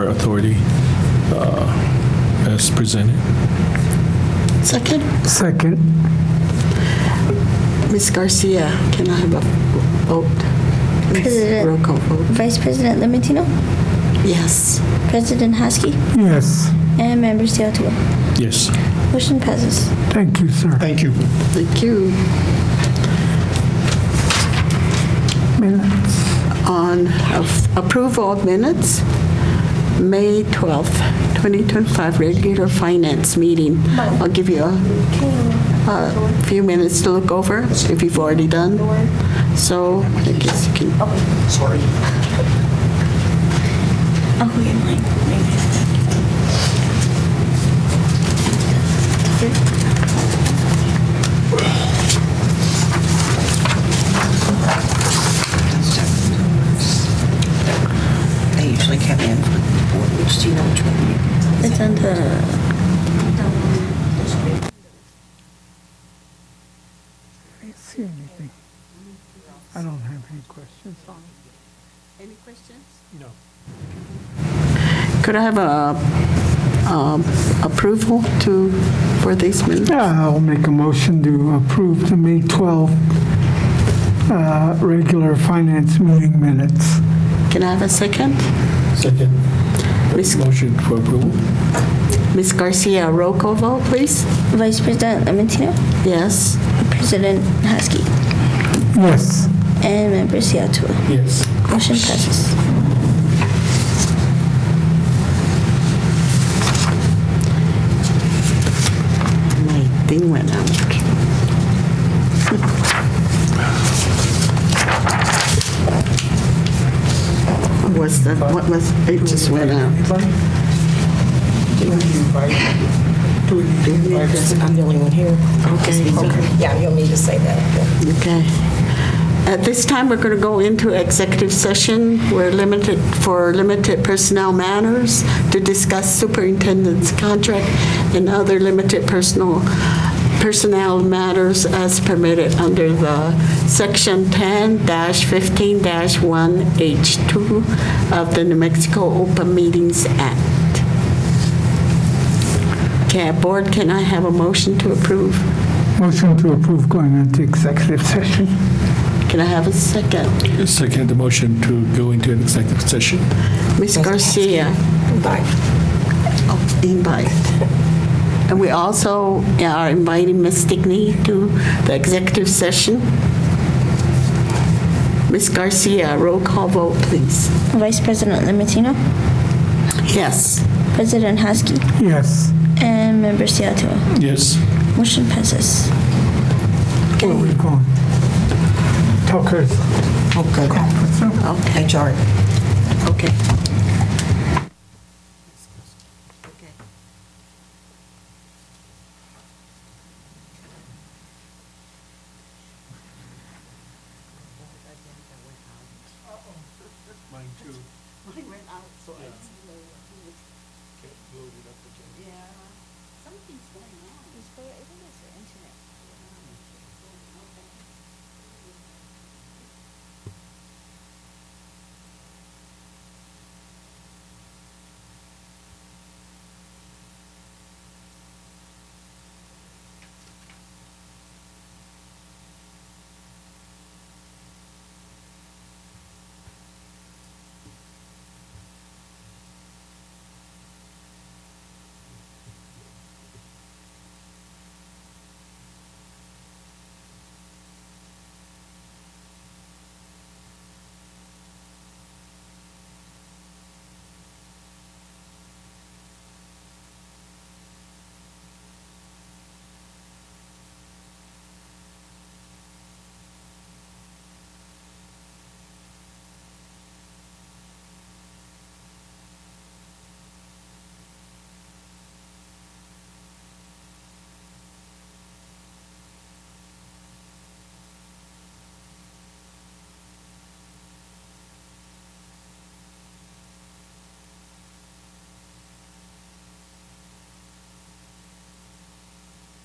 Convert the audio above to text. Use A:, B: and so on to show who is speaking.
A: authority uh, as presented.
B: Second,
C: Second.
B: Ms. Garcia, can I have a vote? Please,
D: President.
B: Roll call vote.
D: Vice President Limentino,
B: Yes.
D: President Husky,
C: Yes,
D: and members Seattle.
A: Yes.
D: Motion passes.
C: thank you, sir.
E: Thank you.
B: Thank you.
C: Minutes.
B: On of- approval of minutes, May 12th, 2025, regular finance meeting. I'll give you a a few minutes to look over if you've already done. So I guess you can
F: They usually come in. Which do you know which one?
D: It's on the,
C: I don't see anything. I don't have any questions on it.
B: Any questions? No. Could I have a um, approval to, for these minutes?
C: Yeah, I'll make a motion to approve the May 12th uh, regular finance meeting minutes.
B: Can I have a second?
A: Second.
B: Ms.
A: Motion for approval?
B: Ms. Garcia, roll call vote, please.
D: Vice President Limentino,
B: Yes.
D: President Husky,
C: Yes,
D: and members Seattle.
A: Yes.
D: Motion passes.
B: My thing went out. Was the, what was, it just went out.
F: I'm the only one here.
B: Okay.
F: Yeah, you'll need to say that.
B: Okay. At this time, we're going to go into executive session. We're limited, for limited personnel matters to discuss superintendent's contract and other limited personal, personnel matters as permitted under the Section 10-15-1H2 of the New Mexico Open Meetings Act. Okay, Board, can I have a motion to approve?
C: motion to approve going into executive session.
B: Can I have a second?
A: Second, the motion to go into an executive session.
B: Ms. Garcia, Oh,
F: Bye.
B: invite. And we also are inviting Ms. Stickney to the executive session. Ms. Garcia, roll call vote, please.
D: Vice President Limentino,
B: Yes.
D: President Husky,
C: Yes.
D: and members Seattle.
A: Yes.
D: Motion passes.
C: Where are we going? Tucker's.
F: Oh, good.
B: Okay,
F: HR.
B: okay.